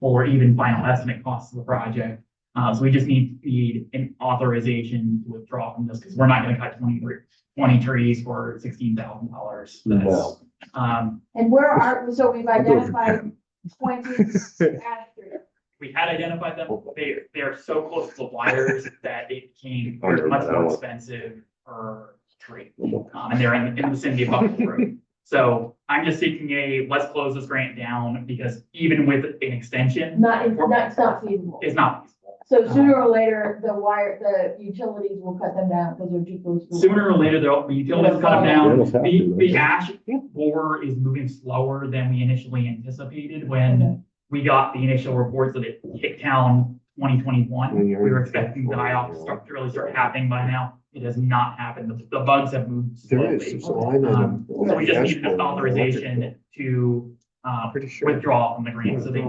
or even final estimate costs of the project. Uh, so we just need, need an authorization to withdraw from this, because we're not gonna cut 20 three- 20 trees for sixteen thousand dollars. No. Um, And where are, so we've I'll do it. identified twenty accurate. we had identified them, they, they are so close to the wires that it became I remember much that more one. expensive per tree. Um, and they're in, in the vicinity of Buffalo Road. So I'm just seeking a, let's close this grant down, because even with an extension, Not, it's not, it's not feasible. it's not feasible. So sooner or later, the wire, the utilities will cut them down because they're too close. to the wire. Sooner or later, there'll, the utilities cut them down, They almost have The, to, the right? ash borer is moving slower than we initially anticipated when we got the initial reports that it hit town twenty twenty-one. We were expecting the die off to start, to really start happening by now. It has not happened. The, the bugs have moved There is, slowly. Um, there's a line item. So we just needed an authorization to, uh, Pretty sure. withdraw from the grant. So they,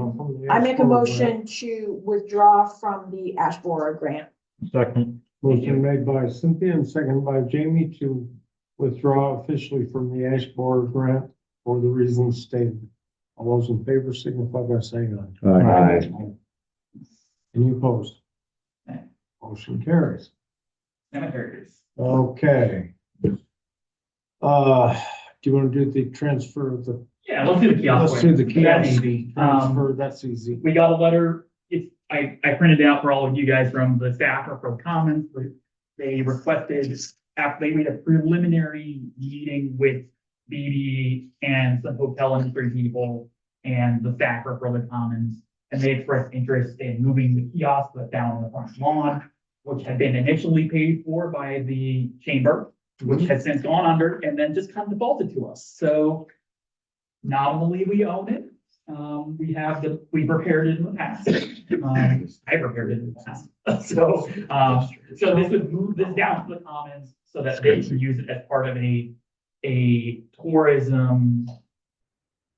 I make a motion to withdraw from the ash borer grant. Second. Motion made by Cynthia and seconded by Jamie to withdraw officially from the Ash Borer grant for the reasons stated. All those in favor signify by saying aye. Aye. Any opposed? Aye. Motion carries. cemeteries. Okay. Uh, do you want to do the transfer of the, Yeah, let's do the kiosk. let's do the one. kiosk That's easy. Um, transfer, that's easy. we got a letter, it's, I, I printed it out for all of you guys from the staff or from Commons. They requested, after they made a preliminary meeting with BB and some hotel industry people and the staff or from the Commons. And they expressed interest in moving the kiosk that's down on the front lawn, which had been initially paid for by the chamber, which has since gone under and then just kind of defaulted to us. So nominally, we own it. Um, we have the, we prepared it in the past. Um, I prepared it in the past. So, um, so this would move this down to the commons so that they can use it as part of a, a tourism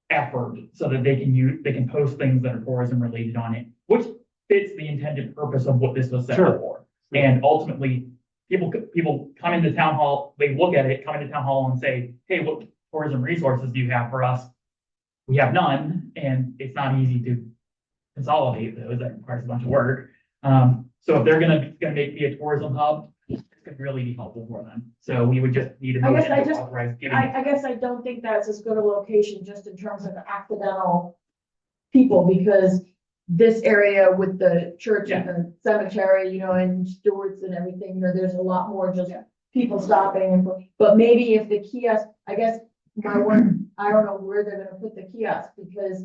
effort so that they can use, they can post things that are tourism related on it, which fits the intended purpose of what this was set up Sure. for. And ultimately, people, c- people come into town hall, they look at it, come into town hall and say, hey, what tourism resources do you have for us? We have none, and it's not easy to consolidate those, that requires a bunch of work. Um, so if they're gonna, it's gonna make me a tourism hub, it's gonna really be helpful for them. So we would just need a I guess motion I to just- authorize giving. I, I guess I don't think that's as good a location just in terms of accidental people, because this area with the church and the cemetery, you know, and stewards and everything, you know, there's a lot more just people stopping and, but maybe if the kiosk, I guess my one, I don't know where they're gonna put the kiosk, because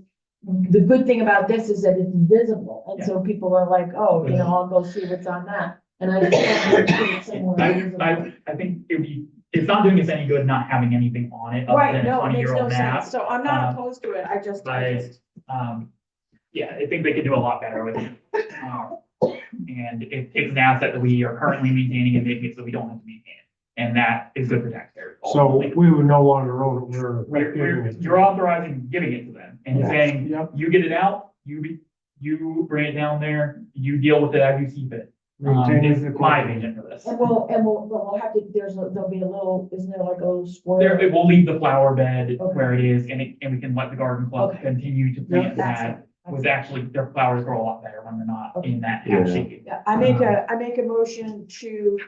the good thing about this is that it's visible, and so people are like, oh, you know, I'll go see what's on that, and I just. I, I, I think it'd be, it's not doing us any good not having anything on it other Right, than a no, it twenty makes year no old sense. map. So I'm um, not opposed to it. I just, I But, just, um, yeah, I think they could do a lot better with it. Um, And it takes an asset that we are currently maintaining and making it so we don't have to maintain it. And that is good for taxpayers. So ultimately. we would no longer own it, we're. We're- we're- you're authorizing giving it to them and saying, Yep, you get it out, you, be- you bring it down there, you deal with it as you see fit. Um, maintaining is the my quality. vision for this. And we'll, and we'll, but we'll have to, there's, a- there'll be a little, isn't there like a little There, square? it will leave the flower bed Okay. where it is and it, and we can let the garden club Okay. continue to plant that's that. With actually, their flowers grow a lot better when they're not in that Okay. half Yeah. shape. yeah, I make uh, a, I make a motion to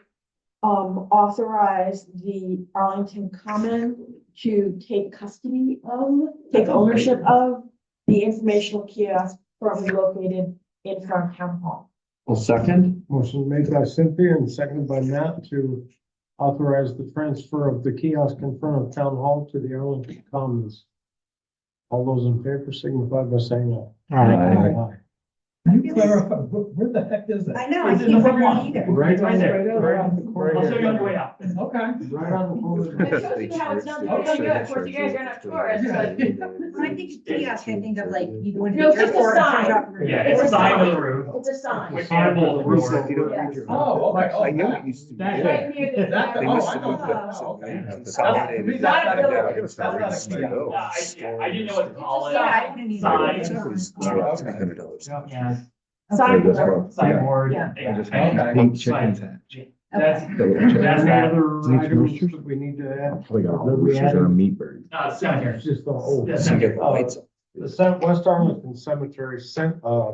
um, authorize the Arlington Common to take custody of, take ownership of the informational kiosk currently located in front of town hall. Well, second? Motion made by Cynthia and seconded by Matt to authorize the transfer of the kiosk in front of town hall to the Arlington Commons. All those in favor signify by saying aye. Aye. Can you clarify, where, where the heck is that? I know, I It's in can't the front remember lawn. Right Right there. I'll show you on your way there. out. Okay. Right on the corner. It shows you how it's not doing any good. Of course, you guys are not tourists, but- When I think kiosk, I think of like, you go into. No, the it's just a airport and sign. drop your- Yeah, it's a sign with a roof. It's a sign. With It's animal With roof. the roof. Oh, okay, oh. I know it used to be. That- there. Right near the. That- They oh, must I have know. moved that somewhere. Okay. Consolidated. That's not a building. I'm gonna stop That's not a reading my kiosk. notes. Yeah, I- yeah, I didn't know what to call it. Yeah. I wouldn't even- Sign. It's Yeah. not- it's not $300. Yeah, Sign. That's wrong. Yeah. signboard. Yeah. yeah, I just I- had Okay. eight chickens. That's, that's Any that, other Needs items roosters? that we need to add? Probably got That we roosters added? meat bird. uh, cemetery. It's Just the old. Yeah. So you get the lights up. The Cent- West Arlington Cemetery sent, uh,